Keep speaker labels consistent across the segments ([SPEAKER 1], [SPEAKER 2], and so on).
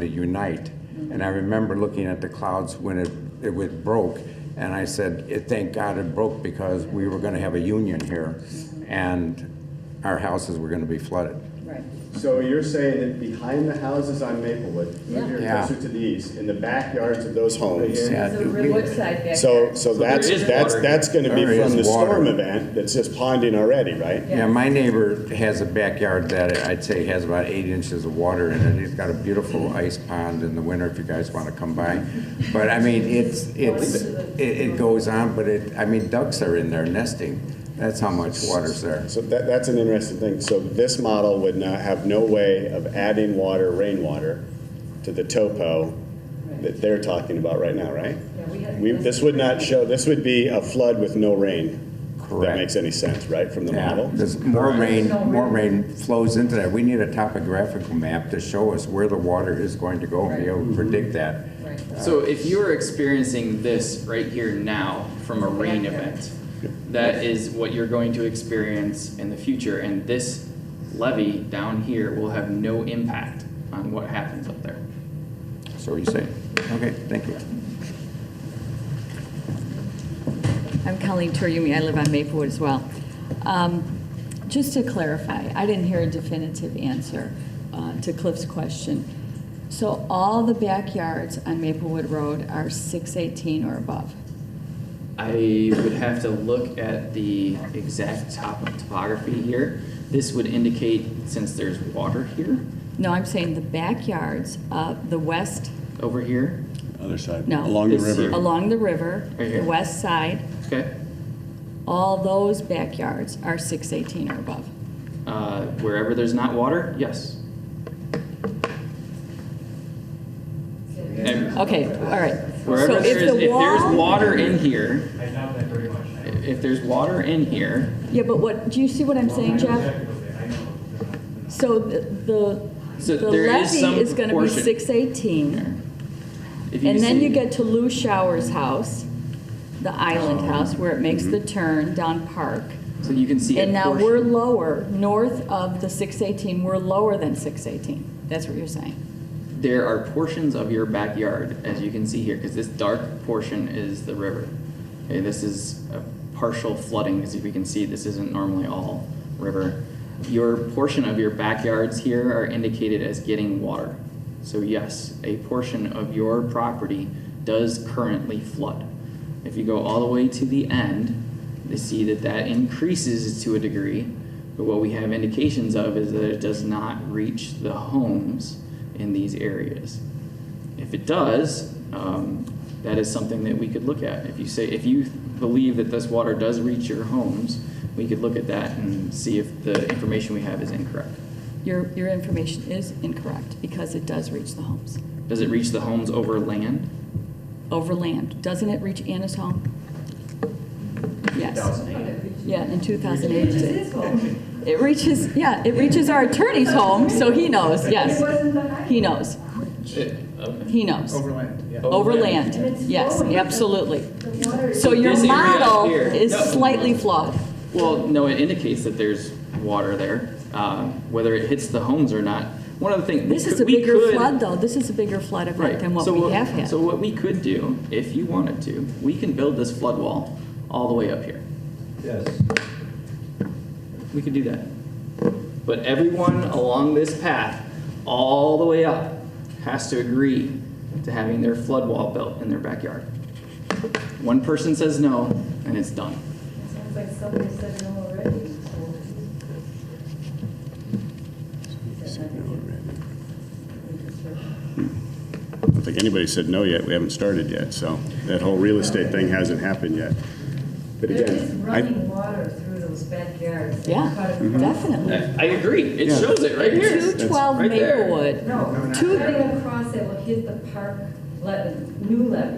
[SPEAKER 1] to unite. And I remember looking at the clouds when it, it was broke, and I said, "It- thank God it broke because we were gonna have a union here, and our houses were gonna be flooded.
[SPEAKER 2] Right.
[SPEAKER 3] So you're saying that behind the houses on Maplewood, right here
[SPEAKER 1] Yeah.
[SPEAKER 3] closer to the east, in the backyards of those homes.
[SPEAKER 1] Yeah,
[SPEAKER 2] So
[SPEAKER 1] dude, we-
[SPEAKER 2] Woodside back
[SPEAKER 3] So,
[SPEAKER 2] there.
[SPEAKER 3] so that's,
[SPEAKER 4] there is
[SPEAKER 3] that's,
[SPEAKER 4] water.
[SPEAKER 3] that's gonna be
[SPEAKER 1] There is
[SPEAKER 3] from the
[SPEAKER 1] water.
[SPEAKER 3] storm event that's just ponding already, right?
[SPEAKER 1] Yeah, my neighbor has a backyard that I'd say has about eight inches of water in it. He's got a beautiful ice pond in the winter if you guys want to come by. But I mean, it's, it's, it, it goes on, but it, I mean, ducks are in there nesting. That's how much water's there.
[SPEAKER 3] So that, that's an interesting thing. So this model would not, have no way of adding water, rainwater, to the topo that they're talking about right now, right?
[SPEAKER 2] Yeah, we had-
[SPEAKER 3] We, this would not show, this would be a flood with no rain. If
[SPEAKER 1] Correct.
[SPEAKER 3] That makes any sense, right, from the
[SPEAKER 1] Yeah,
[SPEAKER 3] model?
[SPEAKER 1] there's more rain, more rain flows into that. We need a topographical map to show us where the water is going to go and be able
[SPEAKER 3] Mm-hmm.
[SPEAKER 1] to predict that.
[SPEAKER 2] Right.
[SPEAKER 4] So if you are experiencing this right here now from a rain event, that is what you're going to experience in the future, and this levee down here will have no impact on what happens up there.
[SPEAKER 1] So you say, okay, thank you.
[SPEAKER 5] I'm Colleen Toriumi. I live on Maplewood as well. Um, Just to clarify, I didn't hear a definitive answer uh, to Cliff's question. So all the backyards on Maplewood Road are 618 or above?
[SPEAKER 4] I would have to look at the exact top topography here. This would indicate, since there's water here,
[SPEAKER 5] No, I'm saying the backyards, uh, the west,
[SPEAKER 4] over here,
[SPEAKER 6] Other side.
[SPEAKER 5] No.
[SPEAKER 6] Along the
[SPEAKER 4] This here.
[SPEAKER 6] river.
[SPEAKER 5] along the river,
[SPEAKER 4] Right here.
[SPEAKER 5] the west side,
[SPEAKER 4] okay?
[SPEAKER 5] all those backyards are 618 or above.
[SPEAKER 4] Uh, wherever there's not water, yes. And-
[SPEAKER 5] Okay, all right. So
[SPEAKER 4] Wherever there is,
[SPEAKER 5] the
[SPEAKER 4] if there's
[SPEAKER 5] wall-
[SPEAKER 4] water in here,
[SPEAKER 7] I doubt that very much. I know-
[SPEAKER 4] if there's water in here,
[SPEAKER 5] Yeah, but what, do you see what I'm saying,
[SPEAKER 7] I know
[SPEAKER 5] Jeff?
[SPEAKER 7] exactly what they- I know they're not- they're not-
[SPEAKER 5] So the- the,
[SPEAKER 4] So
[SPEAKER 5] the
[SPEAKER 4] there is some
[SPEAKER 5] levy is gonna be
[SPEAKER 4] proportion.
[SPEAKER 5] six eighteen.
[SPEAKER 4] if you
[SPEAKER 5] And then
[SPEAKER 4] see-
[SPEAKER 5] you get to Lou Shower's house, the island
[SPEAKER 4] Uh-huh.
[SPEAKER 5] house where it makes the turn down Park.
[SPEAKER 4] so you can Mm-hmm. see a
[SPEAKER 5] And now
[SPEAKER 4] portion.
[SPEAKER 5] we're lower, north of the six eighteen, we're lower than six eighteen. That's what you're saying.
[SPEAKER 4] there are portions of your backyard, as you can see here, because this dark portion is the river. Okay, this is a partial flooding, because if you can see, this isn't normally all river. Your portion of your backyards here are indicated as getting water. So yes, a portion of your property does currently flood. If you go all the way to the end, they see that that increases to a degree, but what we have indications of is that it does not reach the homes in these areas. If it does, um, that is something that we could look at. If you say, if you believe that this water does reach your homes, we could look at that and see if the information we have is incorrect.
[SPEAKER 5] Your, your information is incorrect because it does reach the homes.
[SPEAKER 4] Does it reach the homes over land?
[SPEAKER 5] Over land, doesn't it reach Anna's home? Yes. Yeah, in two thousand eight.
[SPEAKER 2] This is home.
[SPEAKER 5] It reaches, yeah, it reaches our attorney's home, so he knows,
[SPEAKER 2] It
[SPEAKER 5] yes.
[SPEAKER 2] wasn't the highway.
[SPEAKER 5] He knows, he knows.
[SPEAKER 7] Overland, yeah.
[SPEAKER 5] Overland,
[SPEAKER 2] And it's
[SPEAKER 5] yes,
[SPEAKER 2] flowing.
[SPEAKER 5] absolutely.
[SPEAKER 2] The water is-
[SPEAKER 5] So your
[SPEAKER 4] This area up
[SPEAKER 5] model
[SPEAKER 4] here.
[SPEAKER 5] is
[SPEAKER 4] No.
[SPEAKER 5] slightly flawed.
[SPEAKER 4] Well, no, it indicates that there's water there, uh, whether it hits the homes or not. One of the things.
[SPEAKER 5] This is a
[SPEAKER 4] we
[SPEAKER 5] bigger
[SPEAKER 4] could-
[SPEAKER 5] flood, though, this is a bigger flood
[SPEAKER 4] Right.
[SPEAKER 5] event than what
[SPEAKER 4] So
[SPEAKER 5] we have had.
[SPEAKER 4] So what we could do, if you wanted to, we can build this flood wall all the way up here.
[SPEAKER 7] Yes.
[SPEAKER 4] We could do that. But everyone along this path, all the way up, has to agree to having their flood wall built in their backyard. One person says no, and it's done.
[SPEAKER 2] Sounds like somebody said no already, so.
[SPEAKER 3] I don't think anybody said no yet, we haven't started yet, so that whole real estate thing hasn't happened yet. But
[SPEAKER 2] There is
[SPEAKER 3] again, I,
[SPEAKER 2] running water through those backyards. They
[SPEAKER 5] Yeah,
[SPEAKER 2] cut across-
[SPEAKER 5] definitely.
[SPEAKER 4] I agree. It
[SPEAKER 3] Yeah.
[SPEAKER 4] shows it right here.
[SPEAKER 5] 212
[SPEAKER 4] Right there.
[SPEAKER 5] Maplewood,
[SPEAKER 2] No, not
[SPEAKER 5] Two-
[SPEAKER 2] cutting across that will hit the park levee, new levee.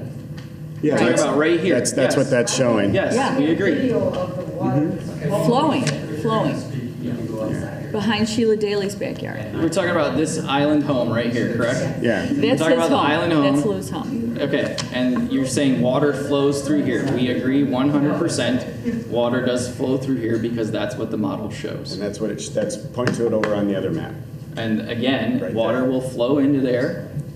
[SPEAKER 3] yeah,
[SPEAKER 4] Talking
[SPEAKER 3] that's,
[SPEAKER 4] about right here.
[SPEAKER 3] that's, that's what
[SPEAKER 4] Yes.
[SPEAKER 3] that's showing.
[SPEAKER 4] Yes,
[SPEAKER 5] Yeah.
[SPEAKER 4] we agree.
[SPEAKER 2] Video of the water that's
[SPEAKER 5] flowing, flowing,
[SPEAKER 7] Speak, you can go outside.
[SPEAKER 5] behind Sheila Daly's backyard.
[SPEAKER 4] We're talking about this island home right here, correct?
[SPEAKER 3] Yeah.
[SPEAKER 5] That's his
[SPEAKER 4] talking about the
[SPEAKER 5] home,
[SPEAKER 4] island home.
[SPEAKER 5] that's Lou's home.
[SPEAKER 4] Okay, and you're saying water flows through here. We agree one hundred percent. Water does flow through here because that's what the model shows.
[SPEAKER 3] And that's what it, that's, point to it over on the other map.
[SPEAKER 4] And again,
[SPEAKER 3] Right
[SPEAKER 4] water
[SPEAKER 3] there.
[SPEAKER 4] will flow into there.